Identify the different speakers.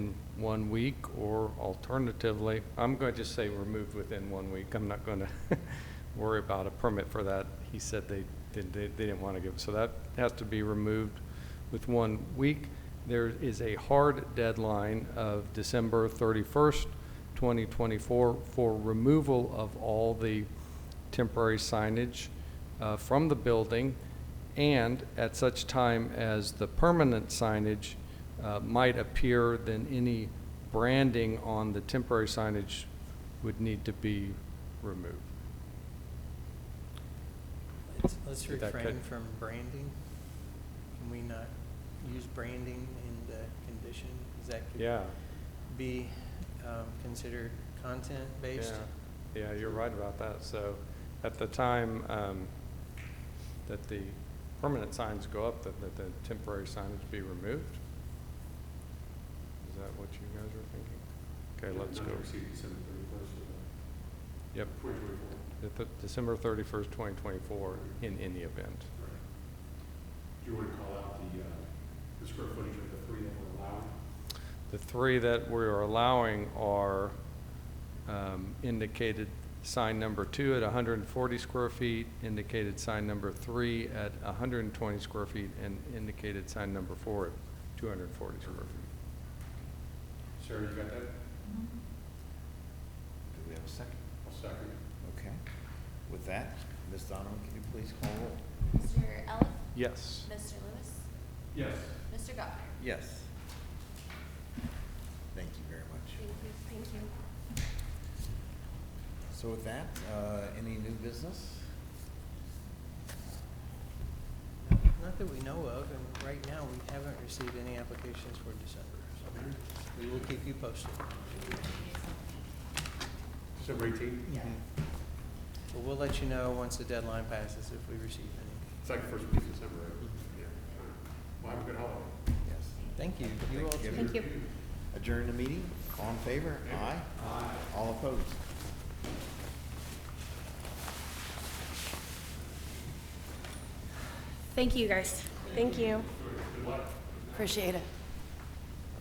Speaker 1: one week, or alternatively, I'm going to just say removed within one week. I'm not going to worry about a permit for that. He said they, they, they they didn't want to give, it. so that has to be removed with one week. There is a hard deadline of December 31st, 2024 for removal of all the temporary signage uh, from the building, and at such time as the permanent signage uh, might appear, then any branding on the temporary signage would need to be removed.
Speaker 2: Let's- Let's
Speaker 1: Did that
Speaker 2: refrain
Speaker 1: cut-
Speaker 2: from branding. Can we not use branding in the condition? Is that could
Speaker 1: Yeah,
Speaker 2: be um, considered
Speaker 1: yeah,
Speaker 2: content-based?
Speaker 1: yeah, you're right about that. So at the time um, that the permanent signs go up, that that the temporary signage be removed? Is that what you guys are thinking? Okay, let's go.
Speaker 3: Not exceed December thirty-first of
Speaker 1: Yep.
Speaker 3: twenty twenty-four.
Speaker 1: At the- December 31st, 2024, in any event.
Speaker 3: Do you want to call out the, uh, the square footage of the three that were allowed?
Speaker 1: The three that we're allowing are um, indicated sign number two at 140 square feet, indicated sign number three at 120 square feet, and indicated sign number four at 240 square feet.
Speaker 3: Sarah, you got that?
Speaker 4: Do we have a second?
Speaker 3: I'll second it.
Speaker 4: Okay. With that, Ms. Donovan, can you please call roll?
Speaker 5: Mr. Eliff?
Speaker 1: Yes.
Speaker 5: Mr. Lewis?
Speaker 3: Yes.
Speaker 5: Mr. Gardner?
Speaker 4: Yes. Thank you very much.
Speaker 5: Thank you.
Speaker 4: So with that, uh, any new business?
Speaker 2: Not that we know of, and right now, we haven't received any applications for December. So we will keep you posted.
Speaker 3: December eighteenth?
Speaker 2: But we'll let you know once the deadline passes if we receive any.
Speaker 3: It's like the first week of December, right? Yeah. Well, have a good holiday.
Speaker 4: Yes.
Speaker 2: Thank you. You all too.
Speaker 4: Thank you. Adjourn the meeting. All in favor? Aye. Aye. All opposed?
Speaker 6: Thank you, guys. Thank you. Appreciate it.